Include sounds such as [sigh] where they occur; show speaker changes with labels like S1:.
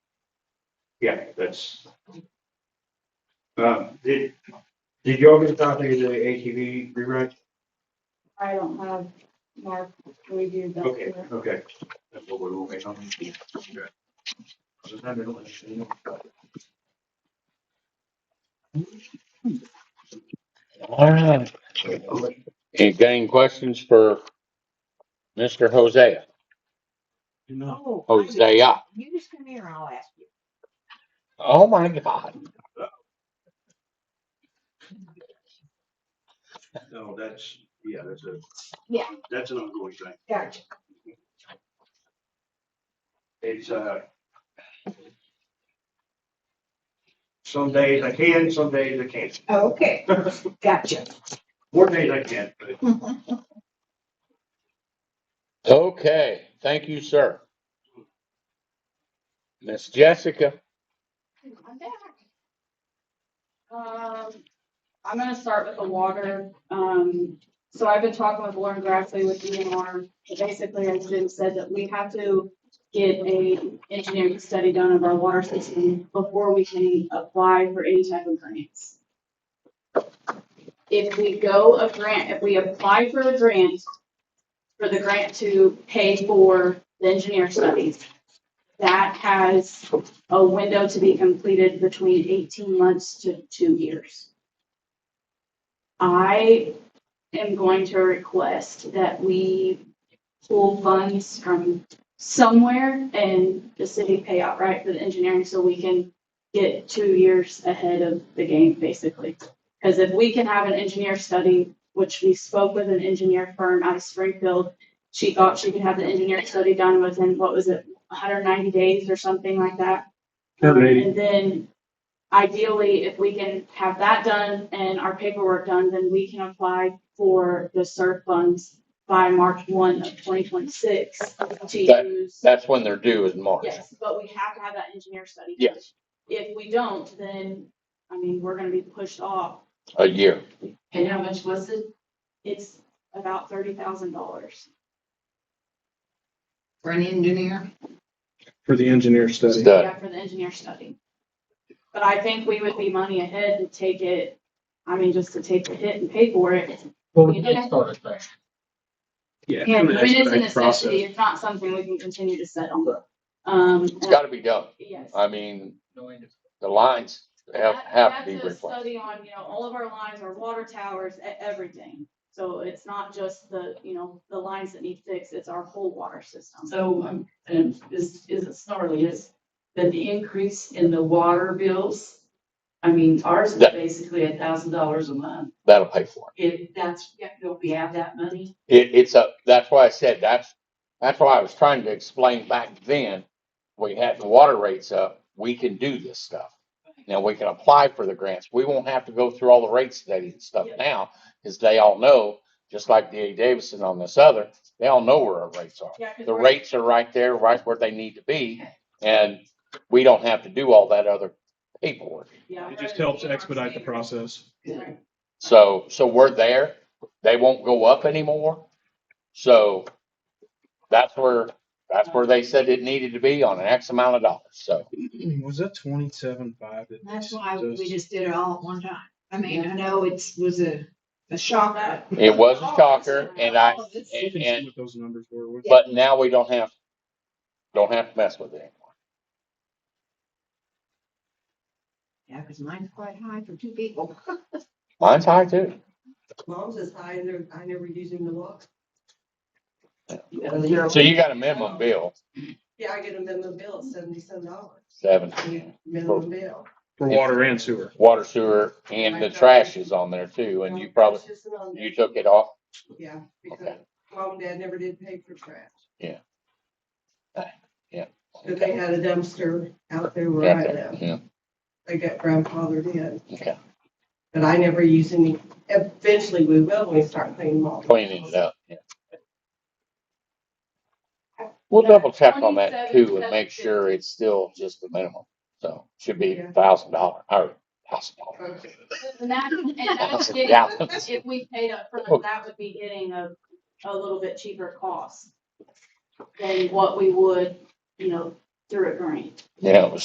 S1: Yeah, that's. Um, did, did y'all get a copy of the ATV rewrite?
S2: I don't have Mark reviewed that.
S1: Okay,
S2: yet.
S1: okay. That's what we're waiting on. Okay. Just have it on.
S3: All right. You got any questions for Mr. Hosea?
S4: No.
S3: Oh, Hosea.
S4: Oh, You just come here and I'll ask you.
S3: Oh my God.
S1: No, that's, yeah, that's a,
S4: Yeah,
S1: that's an ongoing thing.
S4: gotcha.
S1: It's, uh, some days I can, some days I can't. [laughs]
S4: Oh, Okay,
S5: [laughs]
S4: gotcha.
S1: More days I can, but
S3: Okay. Thank you, sir. Miss Jessica.
S2: I'm back. Um, I'm gonna start with the water. Um, so I've been talking with Lauren Grassley with DNR. Basically, it's been said that we have to get a engineering study done of our water system before we can apply for any type of grants. If we go a grant, if we apply for a grant, for the grant to pay for the engineer studies, that has a window to be completed between eighteen months to two years. I am going to request that we pull funds from somewhere and the city pay outright for the engineering so we can get two years ahead of the game, basically. Because if we can have an engineer study, which we spoke with an engineer firm out of Springfield, she thought she could have the engineer study done within, what was it, hundred ninety days or something like that. Um, And then ideally, if we can have that done and our paperwork done, then we can apply for the SERF funds by March one of twenty twenty-six to
S3: That-
S2: use.
S3: That's when they're due is March.
S2: Yes, but we have to have that engineer study.
S3: Yes.
S2: If we don't, then, I mean, we're gonna be pushed off.
S3: A year.
S6: And how much was it
S2: It's about thirty thousand dollars.
S6: for an engineer?
S7: for the engineer study.
S3: Study.
S2: Yeah, for the engineer study. But I think we would be money ahead to take it, I mean, just to take the hit and pay for it.
S8: Well, we did start it there.
S7: Yeah.
S2: Yeah, I mean, it's a
S7: expedite process.
S2: necessity, it's not something we can continue to sit on. Um,
S3: It's gotta be done.
S2: yes.
S3: I mean,
S8: No, I just-
S3: the lines have,
S2: That-
S3: have to be
S2: that's a
S3: replaced.
S2: Study on, you know, all of our lines, our water towers, e- everything. So it's not just the, you know, the lines that need fixed, it's our whole water system.
S6: So, um, and this isn't snarly, is that the increase in the water bills? I mean, ours is
S3: Yeah.
S6: basically a thousand dollars a month.
S3: That'll pay for
S6: If that's, don't we have that money?
S3: it. It, it's a, that's why I said, that's, that's why I was trying to explain back then. We had the water rates up. We can do this stuff. Now we can apply for the grants. We won't have to go through all the rate studies and stuff
S6: Yeah.
S3: now, because they all know, just like DA Davidson on this other, they all know where our rates are.
S2: Yeah, 'cause
S3: The
S2: we're-
S3: rates are right there, right where they need to be, and we don't have to do all that other paperwork.
S2: yeah,
S7: It
S2: we're
S7: just
S2: in
S7: helps
S2: our
S7: expedite the
S2: standard.
S7: process.
S2: Right.
S3: So, so we're there. They won't go up anymore. So that's where, that's where they said it needed to be on an X amount of dollars. So
S7: Hmm, Was that twenty-seven five?
S4: That's why we just did it all at one time. I mean, I know it's, was a, a shock.
S3: it was a shocker and I,
S4: Oh, this-
S7: You can
S3: and-
S7: see what those numbers were. with-
S3: But now we don't have, don't have to mess with it anymore.
S4: Yeah, cause mine's quite high for two people. [laughs]
S3: Mine's high too.
S5: Mom's is high, and they're- I never use them to look.
S3: So you got a minimum bill,
S5: Yeah, I get a minimum bill of seventy-seven dollars,
S3: seven,
S5: minimum bill.
S7: For water and sewer.
S3: water sewer and the trash is on there too. And you probably,
S5: It's just an on-
S3: you took it off.
S5: Yeah, because
S3: Okay.
S5: mom and dad never did pay for trash, but they
S3: Okay.
S5: had a dumpster out there where I
S3: Yeah,
S5: live,
S3: yeah,
S5: they got grandfathered in,
S3: okay.
S5: but I never used any, eventually we will when we start cleaning mom.
S3: Cleaning it up, yeah. We'll double check on that too and make sure it's still just the minimum. So should be a thousand dollar, or thousand dollar,
S5: Okay.
S2: And that, [laughs] and that's
S3: [laughs] thousand
S2: getting,
S3: gallons.
S2: if we paid up
S3: Oh.
S2: front, that would be getting a, a little bit cheaper cost than what we would, you know, through a grant.
S3: You know,